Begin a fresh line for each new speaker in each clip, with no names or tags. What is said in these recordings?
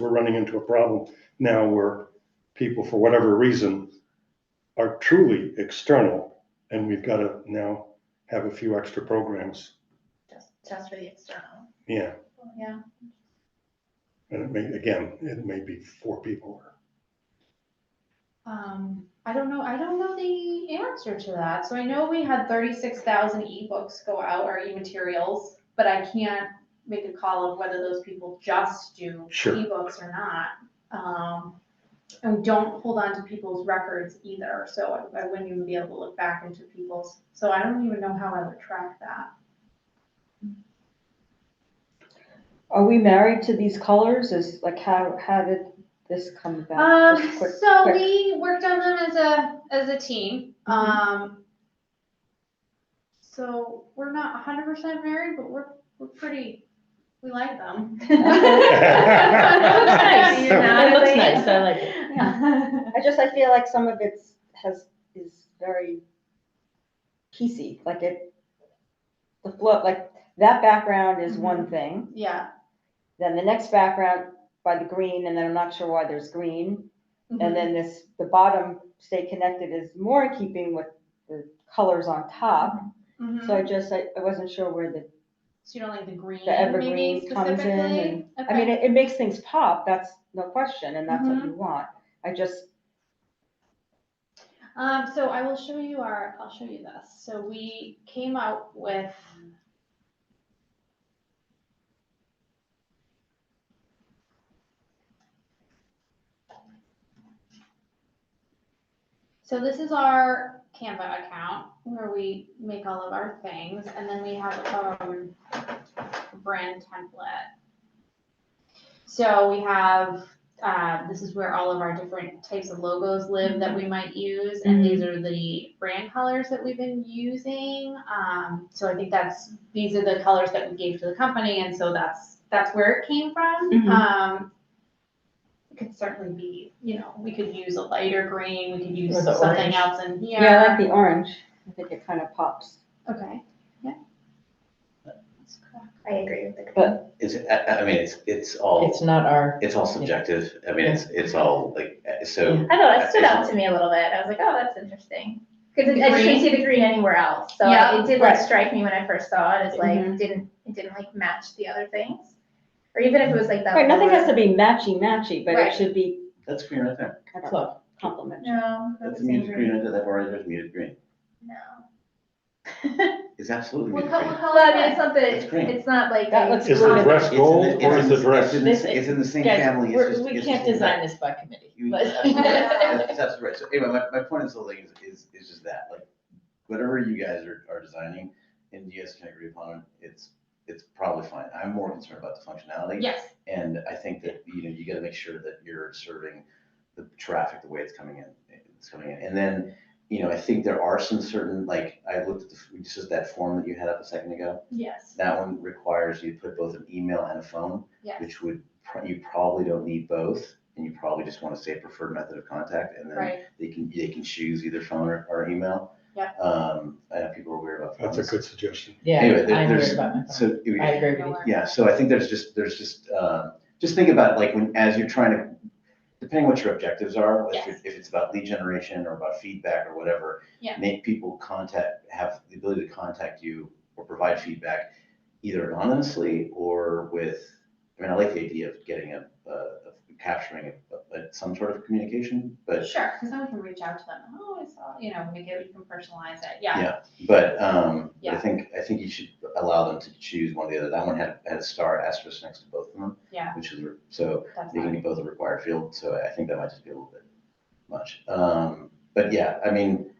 we're running into a problem now where people, for whatever reason, are truly external, and we've got to now have a few extra programs.
Just, just for the external,
Yeah,
yeah.
and it may, again, it may be four people.
Um, I don't know, I don't know the answer to that. So I know we had thirty-six thousand ebooks go out or e-materials, but I can't make a call of whether those people just do
Sure.
ebooks or not. Um, and we don't hold on to people's records either, so I I wouldn't even be able to look back into people's, so I don't even know how I would track that.
Are we married to these colors? Is like how how did this come about?
Um,
Just quick-
so
quick.
we worked on them as a, as a team,
Mhm.
um. So we're not hundred percent married, but we're, we're pretty, we like them.
Nice.
You know?
It looks nice, I like it.
I just I feel like some of it's has is very piecey. Like it the flow like that background is one thing.
Yeah.
Then the next background by the green, and then I'm not sure why there's green. And then this the bottom stay connected is more in keeping with the colors on top.
Mhm.
So I just I, I wasn't sure where the
So you don't like the green,
The
maybe
evergreen comes in
specifically?
I mean,
Okay.
it, it makes things pop, that's no question, and that's what you want. I just,
Um, so I will show you our, I'll show you this. So we came out with. So this is our Canva account where we make all of our things and then we have our brand template. So we have uh, this is where all of our different types of logos live that we might use, and these are the brand colors that we've been using. Um, so I think that's these are the colors that we gave to the company, and so that's that's where it came from.
Mhm.
Um, it could certainly be, you know, we could use a lighter green, we could use
Or the
something
orange.
else in here.
yeah, I like the orange, I think it kind of pops.
okay, yeah. That's correct.
I agree with the.
It's, I, I mean, it's, it's all,
It's not our,
it's all subjective. I mean, it's, it's all like, uh, so,
I know, that stood out to me a little bit. I was like, oh, that's interesting. Cause it- I didn't see the green anywhere else. So
Yeah.
it did like
Right.
strike me when I first saw it as like,
Mhm.
didn't, it didn't like match the other things. Or even if it was like that.
Right, nothing
lower-
has to be matchy-matchy, but
Right.
it should be
that's green right there.
kind of
look,
complimentary.
No. that
That's
doesn't
muted
agree.
green right there. That bar right there is muted green.
No.
It's absolutely
What
muted
color,
green.
what
Well, I
color
mean, it's not that,
It's green.
it's not like.
That
a-
looks
Is
blue.
the dress
It's in
gold
the-
or is
it's
the
in-
dress?
It's in the, s- it's in the same
guys,
family. It's
we're-
just-
we
it's
can't
just-
design this by committee.
You-
but-
That's that's absolutely right. So anyway, my, my point is the thing is, is, is just that, like, whatever you guys are, are designing and you guys can agree upon, it, it's, it's probably fine. I'm more concerned about the functionality.
Yes.
And I think that, you know, you gotta make sure that you're serving the traffic the way it's coming in, it's coming in. And then, you know, I think there are some certain, like, I looked at the, this is that form that you had up a second ago.
Yes.
That one requires you to put both an email and a phone,
Yes.
which would, pro- you probably don't need both. And you probably just wanna say preferred method of contact
Uh,
and then
Right.
they can, they can choose either phone or, or email.
Yeah.
Um, I know people are weird about phones.
That's a good suggestion.
Yeah,
Anyway, there-
I'm
there's-
worried about my phone.
So if-
I agree with
No
you.
worries.
yeah, so I think there's just, there's just, um, just think about like when, as you're trying to, depending what your objectives are, if
Yes.
it- if it's about lead generation or about feedback or whatever.
Yeah.
Make people contact, have the ability to contact you or provide feedback either anonymously or with, I mean, I like the idea of getting a, uh, of capturing a, a- some sort of communication, but,
Sure, because then we can reach out to them. Oh, I saw, you know, make it, you can personalize it. Yeah.
yeah. But, um, I
Yeah.
think, I think you should allow them to choose one or the other. That one had, had a star asterisk next to both of them.
Yeah.
Which is, so
That's
They
fine.
can be both a required field, so I think that might just be a little bit much. Um, but yeah, I mean,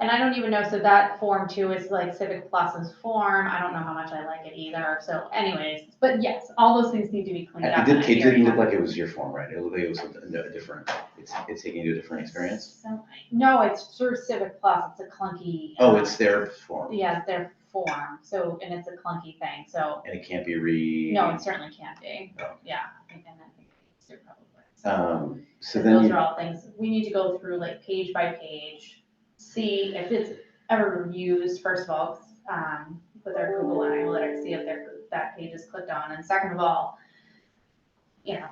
And I don't even know, so that form too is like Civic Plus's form, I don't know how much I like it either, so anyways, but yes, all those things need to be cleaned up.
it
and I
did, it
hear
didn't
you.
look like it was your form, right? It looked like it was something no, different. It's, it's taking you to a different experience.
So- No, it's through Civic Plus, it's a clunky.
Oh,
um,
it's their form
Yeah, it's their form, so, and it's a clunky thing, so,
and it can't be re.
no, it certainly can't be,
No.
yeah, and I think it's their public works.
Um, so
And
then
Those
you,
are all things, we need to go through like page by page, see if it's ever used, first of all, um, with our Google Analytics, see if they're, that page is clicked on, and second of all, you know,